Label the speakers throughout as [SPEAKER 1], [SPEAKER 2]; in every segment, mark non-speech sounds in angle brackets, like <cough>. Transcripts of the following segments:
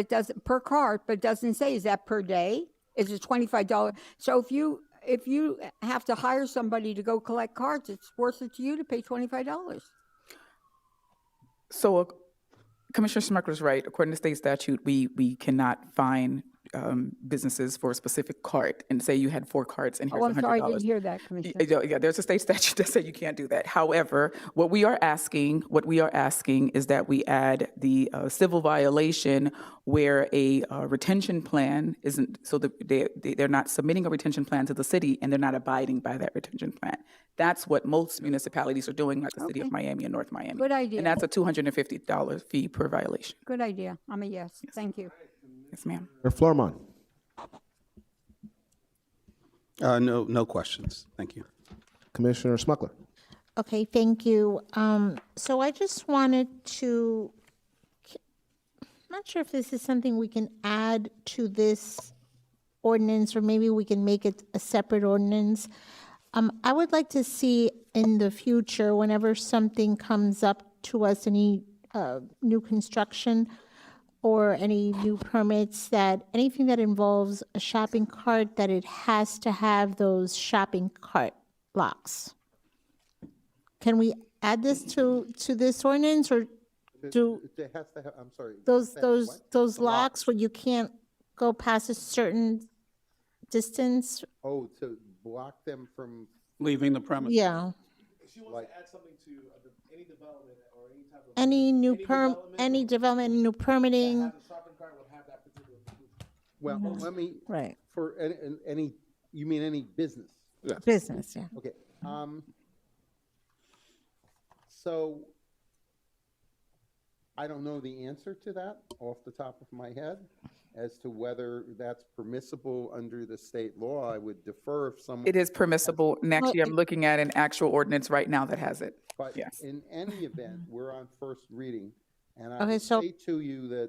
[SPEAKER 1] It doesn't, per cart, but it doesn't say, is that per day? Is it twenty-five dollar? So if you, if you have to hire somebody to go collect cards, it's worth it to you to pay twenty-five dollars.
[SPEAKER 2] So uh, Commissioner Smucker's right. According to state statute, we, we cannot fine um, businesses for a specific cart and say you had four carts and here's
[SPEAKER 1] Oh, I'm
[SPEAKER 2] hundred
[SPEAKER 1] sorry, I didn't
[SPEAKER 2] dollars.
[SPEAKER 1] hear that, Commissioner.
[SPEAKER 2] Yeah, yeah, there's a state <laughs> statute that said you can't do that. However, what we are asking, what we are asking is that we add the uh, civil violation where a uh, retention plan isn't, so that they, they- they're not submitting a retention plan to the city and they're not abiding by that retention plan. That's what most municipalities are doing, like the city of Miami and North Miami.
[SPEAKER 1] Good idea.
[SPEAKER 2] And that's a $250 fee per violation.
[SPEAKER 1] Good idea. I'm a yes. Thank you.
[SPEAKER 2] Yes, ma'am.
[SPEAKER 3] Mayor Flourmont.
[SPEAKER 4] Uh, no, no questions. Thank you.
[SPEAKER 3] Commissioner Smuckler.
[SPEAKER 5] Okay, thank you. Um, So I just wanted to, I'm not sure if this is something we can add to this ordinance, or maybe we can make it a separate ordinance. Um, I would like to see in the future, whenever something comes up to us, any uh, new construction or any new permits, that anything that involves a shopping cart, that it has to have those shopping cart locks. Can we add this to, to this ordinance, or do
[SPEAKER 3] It has to have, I'm sorry.
[SPEAKER 5] those, those, those locks where you can't go past a certain distance?
[SPEAKER 3] Oh, to block them from,
[SPEAKER 4] Leaving the premise.
[SPEAKER 5] Yeah.
[SPEAKER 6] She wants to add something to a de- any development or any type of.
[SPEAKER 5] Any new perm, any development, new permitting?
[SPEAKER 6] The shopping cart would have that particular.
[SPEAKER 3] well, let me,
[SPEAKER 7] Right,
[SPEAKER 3] for any, any, you mean any business?
[SPEAKER 7] business, yeah.
[SPEAKER 3] Okay, um, so I don't know the answer to that off the top of my head as to whether that's permissible under the state law. I would defer if someone.
[SPEAKER 2] It is permissible. And actually, I'm looking at an actual ordinance right now that has it.
[SPEAKER 3] But
[SPEAKER 2] Yes.
[SPEAKER 3] in any event, we're on first reading, and I
[SPEAKER 5] Okay,
[SPEAKER 3] would
[SPEAKER 5] so- Mm-hmm.
[SPEAKER 3] say to you that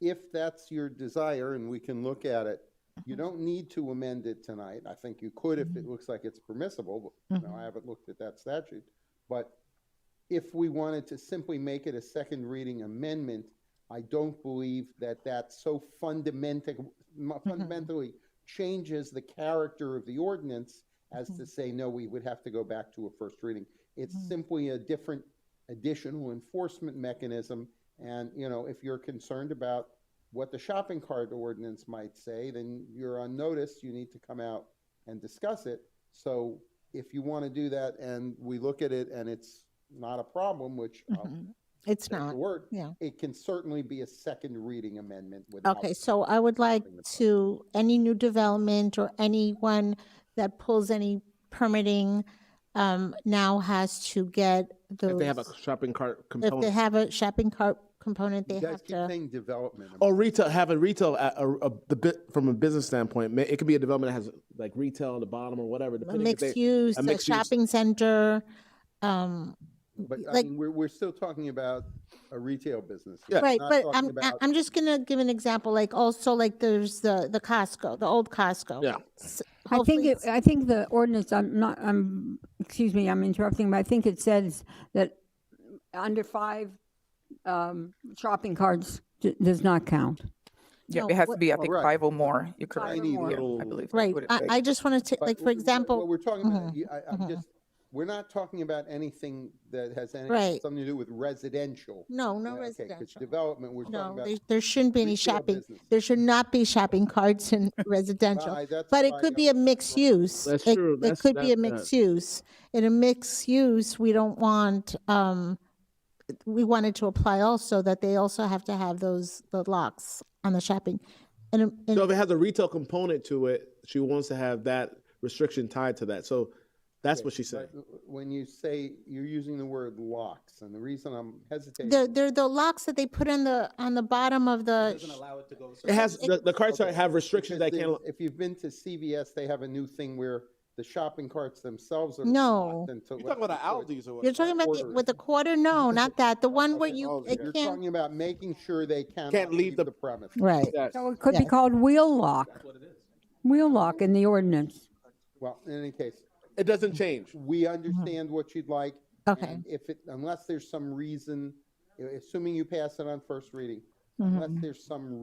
[SPEAKER 3] if that's your desire, and we can look at it, you
[SPEAKER 5] Mm-hmm.
[SPEAKER 3] don't need to amend it tonight. I think you could if it looks like it's permissible, but, you
[SPEAKER 5] Mm-hmm.
[SPEAKER 3] know, I haven't looked at that statute. But if we wanted to simply make it a second reading amendment, I don't believe that that so fundamental, mu-
[SPEAKER 5] Mm-hmm.
[SPEAKER 3] fundamentally changes the character of the ordinance as
[SPEAKER 5] Mm-hmm.
[SPEAKER 3] to say, no, we would have to go back to a first reading. It's
[SPEAKER 5] Mm.
[SPEAKER 3] simply a different additional enforcement mechanism. And, you know, if you're concerned about what the shopping cart ordinance might say, then you're on notice, you need to come out and discuss it. So if you want to do that and we look at it and it's not a problem, which I'll
[SPEAKER 5] Mm-hmm. It's
[SPEAKER 3] take your
[SPEAKER 5] not.
[SPEAKER 3] word,
[SPEAKER 5] yeah.
[SPEAKER 3] it can certainly be a second reading amendment without.
[SPEAKER 5] Okay, so I would like to, any new development or anyone that pulls any permitting um, now has to get those.
[SPEAKER 8] If they have a shopping cart
[SPEAKER 5] If they
[SPEAKER 8] component.
[SPEAKER 5] have a shopping cart component, they
[SPEAKER 3] You guys
[SPEAKER 5] have
[SPEAKER 3] keep
[SPEAKER 5] to. Oh,
[SPEAKER 3] saying development.
[SPEAKER 8] Or Oh, retail, have a retail, a, a, a- the bit, from a business standpoint, ma- it could be a development that has like retail on the bottom or whatever.
[SPEAKER 5] A
[SPEAKER 8] depending if they-
[SPEAKER 5] mixed use, a
[SPEAKER 8] mixed use.
[SPEAKER 5] shopping center, um,
[SPEAKER 3] But I
[SPEAKER 5] like-
[SPEAKER 3] mean, we're, we're still talking about a retail business.
[SPEAKER 8] Yeah.
[SPEAKER 5] right,
[SPEAKER 3] Not
[SPEAKER 5] but
[SPEAKER 3] talking
[SPEAKER 5] I'm, I-
[SPEAKER 3] about-
[SPEAKER 5] I'm just gonna give an example, like also like there's the, the Costco, the old Costco.
[SPEAKER 8] Yeah.
[SPEAKER 5] S-
[SPEAKER 1] I think,
[SPEAKER 5] hopefully
[SPEAKER 1] it- I think the ordinance, I'm not, I'm, excuse me, I'm interrupting, but I think it says that under five um, shopping carts d- does not count.
[SPEAKER 2] Yeah,
[SPEAKER 5] No,
[SPEAKER 2] it has to
[SPEAKER 5] what-
[SPEAKER 2] be, I think,
[SPEAKER 3] Right.
[SPEAKER 2] five or more. You're correct.
[SPEAKER 1] or more.
[SPEAKER 2] Yeah, I believe. that's
[SPEAKER 5] Right,
[SPEAKER 2] what it
[SPEAKER 5] I,
[SPEAKER 2] says.
[SPEAKER 5] I just wanna take,
[SPEAKER 3] But
[SPEAKER 5] like, for
[SPEAKER 3] what- What
[SPEAKER 5] example, Mm-hmm.
[SPEAKER 3] we're talking about, you- I, I'm just, we're not talking about anything that has any,
[SPEAKER 5] Right.
[SPEAKER 3] something to do with residential.
[SPEAKER 5] no, no
[SPEAKER 3] Yeah, okay, 'cause
[SPEAKER 5] residential.
[SPEAKER 3] Development, we're talking
[SPEAKER 5] No,
[SPEAKER 3] about.
[SPEAKER 5] there, there shouldn't be any
[SPEAKER 3] retail
[SPEAKER 5] shopping,
[SPEAKER 3] business.
[SPEAKER 5] there should not be shopping carts in <laughs>
[SPEAKER 3] I-
[SPEAKER 5] residential.
[SPEAKER 3] that's
[SPEAKER 5] But it
[SPEAKER 3] why
[SPEAKER 5] could
[SPEAKER 3] I-
[SPEAKER 5] be a mixed use.
[SPEAKER 8] That's
[SPEAKER 5] It-
[SPEAKER 8] true.
[SPEAKER 5] It
[SPEAKER 8] That's-
[SPEAKER 5] could be a
[SPEAKER 8] that- that-
[SPEAKER 5] mixed use. In a mixed use, we don't want, um, we wanted to apply also that they also have to have those, the locks on the shopping. And, um,
[SPEAKER 8] So if
[SPEAKER 5] and
[SPEAKER 8] it has a retail component to it, she wants to have that restriction tied to that. So that's what she said.
[SPEAKER 3] When you say, you're using the word locks, and the reason I'm hesitating.
[SPEAKER 5] they're, they're the locks that they put on the, on the bottom of the,
[SPEAKER 8] It has, the, the carts are- have restrictions that
[SPEAKER 3] Because
[SPEAKER 8] can't,
[SPEAKER 3] if you've been to CVS, they have a new thing where the shopping carts themselves are.
[SPEAKER 5] No.
[SPEAKER 3] locked until-
[SPEAKER 8] or
[SPEAKER 5] you're talking about the-
[SPEAKER 3] Quarter.
[SPEAKER 5] with the quarter? No, not that. The one where you,
[SPEAKER 8] okay.
[SPEAKER 5] it
[SPEAKER 3] You're
[SPEAKER 5] can't, Mm-hmm.
[SPEAKER 3] talking about making sure they cannot.
[SPEAKER 8] Can't leave the-
[SPEAKER 3] premise.
[SPEAKER 5] right.
[SPEAKER 8] Yes.
[SPEAKER 1] So it could be
[SPEAKER 5] Yes.
[SPEAKER 1] called wheel lock. Wheel lock in the ordinance.
[SPEAKER 3] Well, in any case,
[SPEAKER 8] It doesn't change.
[SPEAKER 3] we understand what you'd like.
[SPEAKER 5] Okay.
[SPEAKER 3] and If it, unless there's some reason, assuming you pass it on first reading, unless there's some